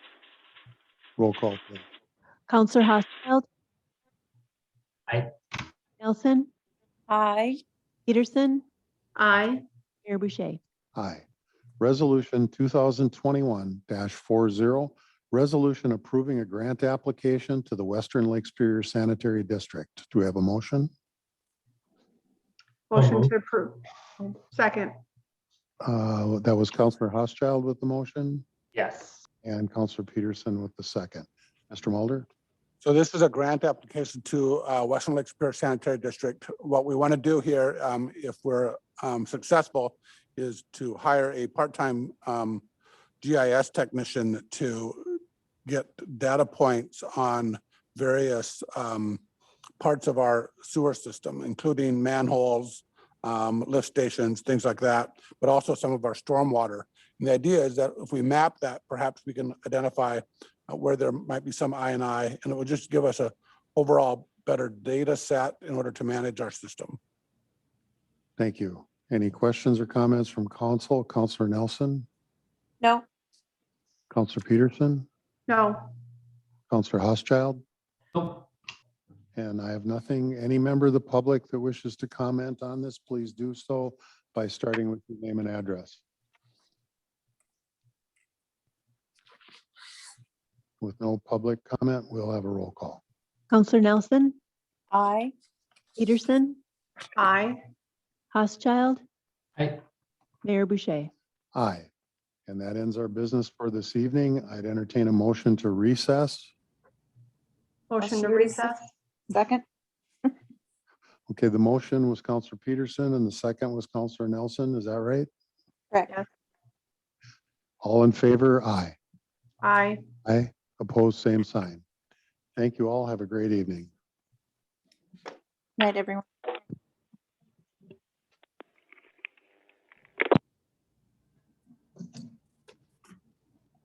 Roll call, please. Counselor Housefield. Aye. Nelson, Aye. Peterson, Aye. Mayor Boucher. Aye. Resolution 2021-40, resolution approving a grant application to the Western Lake Superior Sanitary District. Do we have a motion? Motion moved. to approve. Second. Uh, That was Counselor Housechild with the motion Yes. and Counselor Peterson with the second. Mr. Mulder? So this is a grant application to uh, Western Lake Superior Sanitary District. What we want to do here, um, if we're um, successful, is to hire a part-time um, GIS technician to get data points on various um, parts of our sewer system, including manholes, um, lift stations, things like that, but also some of our stormwater. And the idea is that if we map that, perhaps we can identify uh, where there might be some I and I, and it will just give us a overall better data set in order to manage our system. Thank you. Any questions or comments from council? Counselor Nelson? No. Counselor Peterson? No. Counselor Housechild? Nope. And I have nothing. Any member of the public that wishes to comment on this, please do so by starting with your name and address. With no public comment, we'll have a roll call. Counselor Nelson, Aye. Peterson, Aye. Housechild, Aye. Mayor Boucher. Aye. And that ends our business for this evening. I'd entertain a motion to recess. Motion to recess. Second. Okay, the motion was Counselor Peterson and the second was Counselor Nelson. Is that right? Correct. All in favor? Aye. Aye. Aye. Opposed, same sign. Thank you all. Have a great evening. Night, everyone.